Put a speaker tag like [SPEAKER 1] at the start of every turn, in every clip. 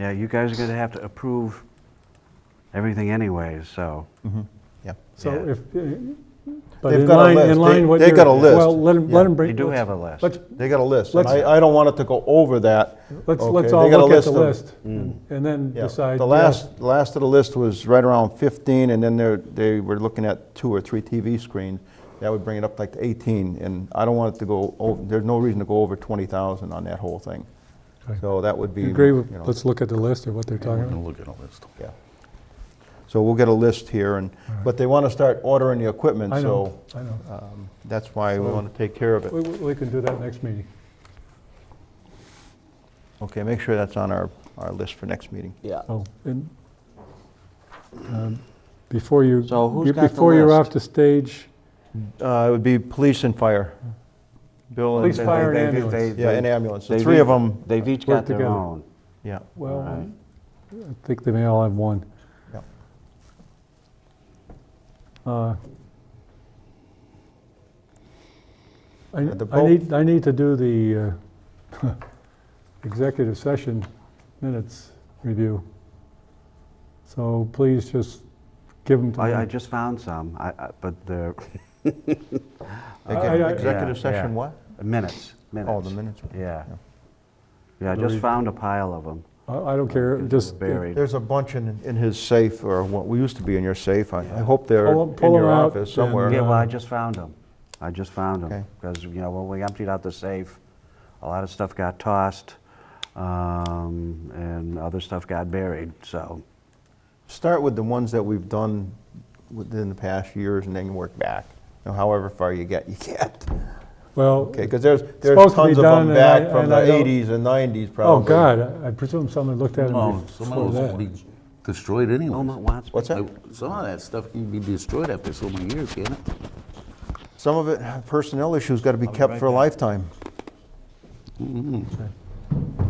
[SPEAKER 1] Yeah, you guys are going to have to approve everything anyways, so.
[SPEAKER 2] Yeah.
[SPEAKER 3] So
[SPEAKER 1] Yeah.
[SPEAKER 3] if, uh, but
[SPEAKER 2] They've
[SPEAKER 3] in
[SPEAKER 2] got a
[SPEAKER 3] line, in
[SPEAKER 2] list. They-
[SPEAKER 3] line what
[SPEAKER 2] they've
[SPEAKER 3] you're...
[SPEAKER 2] got a list.
[SPEAKER 3] Well, let them,
[SPEAKER 2] Yeah.
[SPEAKER 3] let them bring...
[SPEAKER 1] They do
[SPEAKER 3] let's-
[SPEAKER 1] have a list.
[SPEAKER 3] Let's,
[SPEAKER 2] They got a list, and
[SPEAKER 3] Let's-
[SPEAKER 2] I, I don't want it to go over that.
[SPEAKER 3] let's,
[SPEAKER 2] Okay,
[SPEAKER 3] let's
[SPEAKER 2] they
[SPEAKER 3] all
[SPEAKER 2] got a
[SPEAKER 3] look at the
[SPEAKER 2] of- Mm.
[SPEAKER 3] list and and then
[SPEAKER 2] Yeah.
[SPEAKER 3] decide,
[SPEAKER 2] The
[SPEAKER 3] yes,
[SPEAKER 2] last, last of the list was right around 15, and then they're, they were looking at two or three TV screens. That would bring it up like to 18, and I don't want it to go, over. there's no reason to go over 20,000 on that whole thing.
[SPEAKER 3] Okay.
[SPEAKER 2] So that would be.
[SPEAKER 3] you agree, with-
[SPEAKER 2] you know,
[SPEAKER 3] let's look at the list of what they're talking
[SPEAKER 4] We're gonna
[SPEAKER 3] about.
[SPEAKER 4] look at all this.
[SPEAKER 2] Yeah. So we'll get a list here, and, but they want to start ordering the equipment,
[SPEAKER 3] I
[SPEAKER 2] so
[SPEAKER 3] know, I know.
[SPEAKER 2] um, that's why we want to take care of
[SPEAKER 3] We,
[SPEAKER 2] it.
[SPEAKER 3] we we can do that next meeting.
[SPEAKER 2] Okay, make sure that's on our, our list for next meeting.
[SPEAKER 5] Yeah.
[SPEAKER 3] Oh, and um, before you,
[SPEAKER 1] So who's
[SPEAKER 3] you-
[SPEAKER 1] got the
[SPEAKER 3] before you're
[SPEAKER 1] list?
[SPEAKER 3] off the stage,
[SPEAKER 2] Uh, It would be police and fire. Bill and.
[SPEAKER 3] Police,
[SPEAKER 1] They-
[SPEAKER 3] fire,
[SPEAKER 1] they-
[SPEAKER 3] and
[SPEAKER 1] they-
[SPEAKER 3] ambulance.
[SPEAKER 1] they-
[SPEAKER 2] Yeah,
[SPEAKER 1] they-
[SPEAKER 2] and ambulance. The
[SPEAKER 1] they've
[SPEAKER 2] three of
[SPEAKER 1] each-
[SPEAKER 2] them,
[SPEAKER 1] They've each
[SPEAKER 3] work
[SPEAKER 1] got their
[SPEAKER 3] together.
[SPEAKER 1] own.
[SPEAKER 2] yeah.
[SPEAKER 3] well, um,
[SPEAKER 1] Alright.
[SPEAKER 3] I think they may all have one.
[SPEAKER 2] Yep.
[SPEAKER 3] Uh, I
[SPEAKER 2] the
[SPEAKER 3] I
[SPEAKER 2] vote-
[SPEAKER 3] need, I need to do the uh, executive session minutes review. So please just give them to me.
[SPEAKER 1] I, I just found some, I, I- but the
[SPEAKER 3] I- I-
[SPEAKER 2] Executive
[SPEAKER 1] yeah,
[SPEAKER 2] session
[SPEAKER 1] yeah.
[SPEAKER 2] what?
[SPEAKER 1] minutes, minutes.
[SPEAKER 2] Oh, the minutes.
[SPEAKER 1] Yeah.
[SPEAKER 2] Yeah.
[SPEAKER 1] Yeah, I just found a pile of them.
[SPEAKER 3] I I don't care, just uh,
[SPEAKER 1] Buried.
[SPEAKER 2] There's a bunch in, in his safe, or what we used to be in your safe. I I hope they're
[SPEAKER 3] Pull 'em-
[SPEAKER 2] in
[SPEAKER 3] pull 'em
[SPEAKER 2] your
[SPEAKER 3] out
[SPEAKER 2] office somewhere.
[SPEAKER 3] and,
[SPEAKER 1] Yeah, well, I
[SPEAKER 3] uh,
[SPEAKER 1] just found them. I just found them.
[SPEAKER 2] Okay.
[SPEAKER 1] Because, you know, when we emptied out the safe, a lot of stuff got tossed, um, and other stuff got buried, so.
[SPEAKER 2] Start with the ones that we've done within the past years and then work back. You know, However far you get, you get.
[SPEAKER 3] well,
[SPEAKER 2] Okay, because there's, there's
[SPEAKER 3] supposed to be
[SPEAKER 2] tons of
[SPEAKER 3] done,
[SPEAKER 2] them
[SPEAKER 3] and
[SPEAKER 2] back
[SPEAKER 3] I-
[SPEAKER 2] from
[SPEAKER 3] and
[SPEAKER 2] the
[SPEAKER 3] I don't-
[SPEAKER 2] 80s and 90s
[SPEAKER 3] oh,
[SPEAKER 2] probably.
[SPEAKER 3] God, I- I presume someone looked at
[SPEAKER 4] Oh,
[SPEAKER 3] them
[SPEAKER 4] some of
[SPEAKER 3] before
[SPEAKER 4] those will
[SPEAKER 3] that.
[SPEAKER 4] be destroyed anyway.
[SPEAKER 1] Belmont Watts.
[SPEAKER 2] What's that?
[SPEAKER 4] Some of that stuff can be destroyed after so many years, can't it?
[SPEAKER 2] Some of it, personnel issues got to be kept for a lifetime.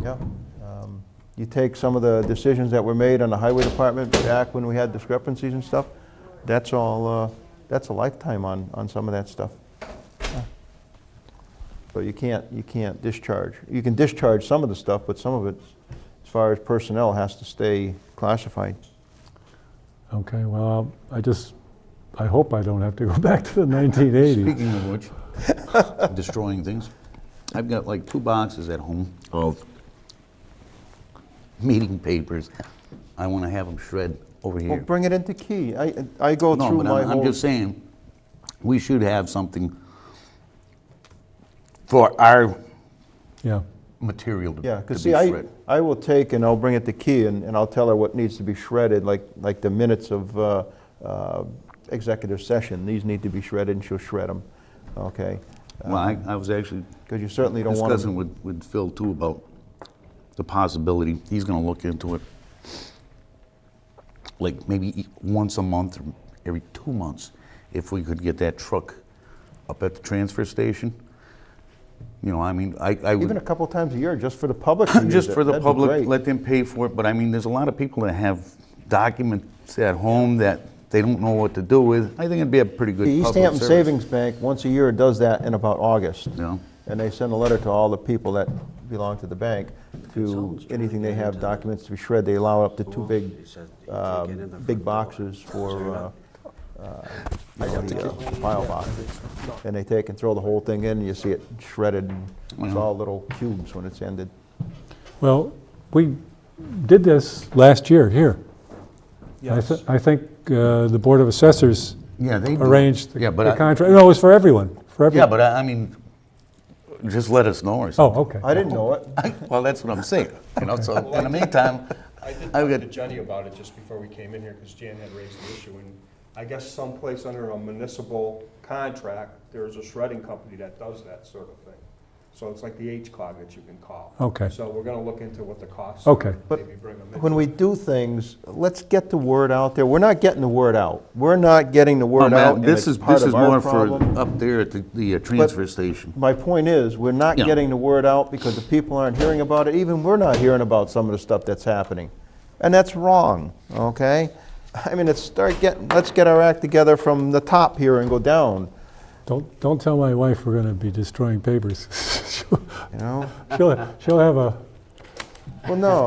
[SPEAKER 2] Yeah. Um, You take some of the decisions that were made on the highway department back when we had discrepancies and stuff, that's all, uh, that's a lifetime on, on some of that stuff. So you can't, you can't discharge. You can discharge some of the stuff, but some of it, as far as personnel, has to stay classified.
[SPEAKER 3] Okay, well, I just, I hope I don't have to go back to the 1980s.
[SPEAKER 4] Speaking of which, destroying things, I've got like two boxes at home of meeting papers. I want to have them shred over
[SPEAKER 2] Well,
[SPEAKER 4] here.
[SPEAKER 2] bring it into key. I, I go
[SPEAKER 4] No,
[SPEAKER 2] through
[SPEAKER 4] but
[SPEAKER 2] my
[SPEAKER 4] I'm,
[SPEAKER 2] whole.
[SPEAKER 4] I'm just saying, we should have something for our
[SPEAKER 3] Yeah,
[SPEAKER 4] material to,
[SPEAKER 2] Yeah,
[SPEAKER 4] to be
[SPEAKER 2] because see, I,
[SPEAKER 4] shred.
[SPEAKER 2] I will take and I'll bring it to Key and, and I'll tell her what needs to be shredded, like, like the minutes of uh, uh, executive session. These need to be shredded and she'll shred them, okay?
[SPEAKER 4] Well, I, I was actually
[SPEAKER 2] Because you certainly don't want
[SPEAKER 4] discussing
[SPEAKER 2] them.
[SPEAKER 4] with, with Phil too about the possibility, he's gonna look into it. Like maybe e- once a month, or every two months, if we could get that truck up at the transfer station. You know, I mean, I, I
[SPEAKER 2] Even a
[SPEAKER 4] would,
[SPEAKER 2] couple times a year, just for the public to use
[SPEAKER 4] just
[SPEAKER 2] it.
[SPEAKER 4] for the
[SPEAKER 2] That'd be
[SPEAKER 4] public,
[SPEAKER 2] great.
[SPEAKER 4] let them pay for it, but I mean, there's a lot of people that have documents at home that they don't know what to do with. I think it'd be a pretty good
[SPEAKER 2] The
[SPEAKER 4] public
[SPEAKER 2] East Hampton
[SPEAKER 4] service.
[SPEAKER 2] Savings Bank, once a year, does that in about August.
[SPEAKER 4] Yeah.
[SPEAKER 2] And they send a letter to all the people that belong to the bank to anything they have documents to be shredded. They allow up to two big, um, big boxes for, uh, uh, uh, file boxes. And they take and throw the whole thing in, and you see it shredded, and it's all little cubes when it's ended.
[SPEAKER 3] well, we did this last year, here. I thi- I think uh, the Board of Assessors
[SPEAKER 4] Yeah, they do.
[SPEAKER 3] arranged the
[SPEAKER 4] Yeah, but
[SPEAKER 3] the
[SPEAKER 4] I-
[SPEAKER 3] contract, no, it was for everyone, for
[SPEAKER 4] Yeah,
[SPEAKER 3] everyone.
[SPEAKER 4] but I, I mean, just let us know or something.
[SPEAKER 3] Oh, okay.
[SPEAKER 2] I didn't know it.
[SPEAKER 4] Well, that's what I'm saying, you know, so in the meantime,
[SPEAKER 6] I did
[SPEAKER 4] I
[SPEAKER 6] talk
[SPEAKER 4] would-
[SPEAKER 6] to Jenny about it just before we came in here, because Jan had raised the issue, and I guess someplace under a municipal contract, there's a shredding company that does that sort of thing. So it's like the H-cog that you can call.
[SPEAKER 3] Okay.
[SPEAKER 6] So we're gonna look into what the costs.
[SPEAKER 3] Okay.
[SPEAKER 6] are,
[SPEAKER 2] But
[SPEAKER 6] maybe bring them in.
[SPEAKER 2] When we do things, let's get the word out there. We're not getting the word out. We're not getting the word
[SPEAKER 4] Well,
[SPEAKER 2] out.
[SPEAKER 4] Matt,
[SPEAKER 2] and
[SPEAKER 4] this
[SPEAKER 2] it's
[SPEAKER 4] is,
[SPEAKER 2] part
[SPEAKER 4] this
[SPEAKER 2] of
[SPEAKER 4] is
[SPEAKER 2] our
[SPEAKER 4] more
[SPEAKER 2] problem.
[SPEAKER 4] for up there at the, the uh, transfer station.
[SPEAKER 2] My point is, we're not
[SPEAKER 4] Yeah.
[SPEAKER 2] getting the word out because the people aren't hearing about it. Even we're not hearing about some of the stuff that's happening. And that's wrong, okay? I mean, it's start getting, let's get our act together from the top here and go down,
[SPEAKER 3] Don't, don't tell my wife we're going to be destroying papers.
[SPEAKER 2] you know?
[SPEAKER 3] She'll, she'll have a,
[SPEAKER 2] Well, no,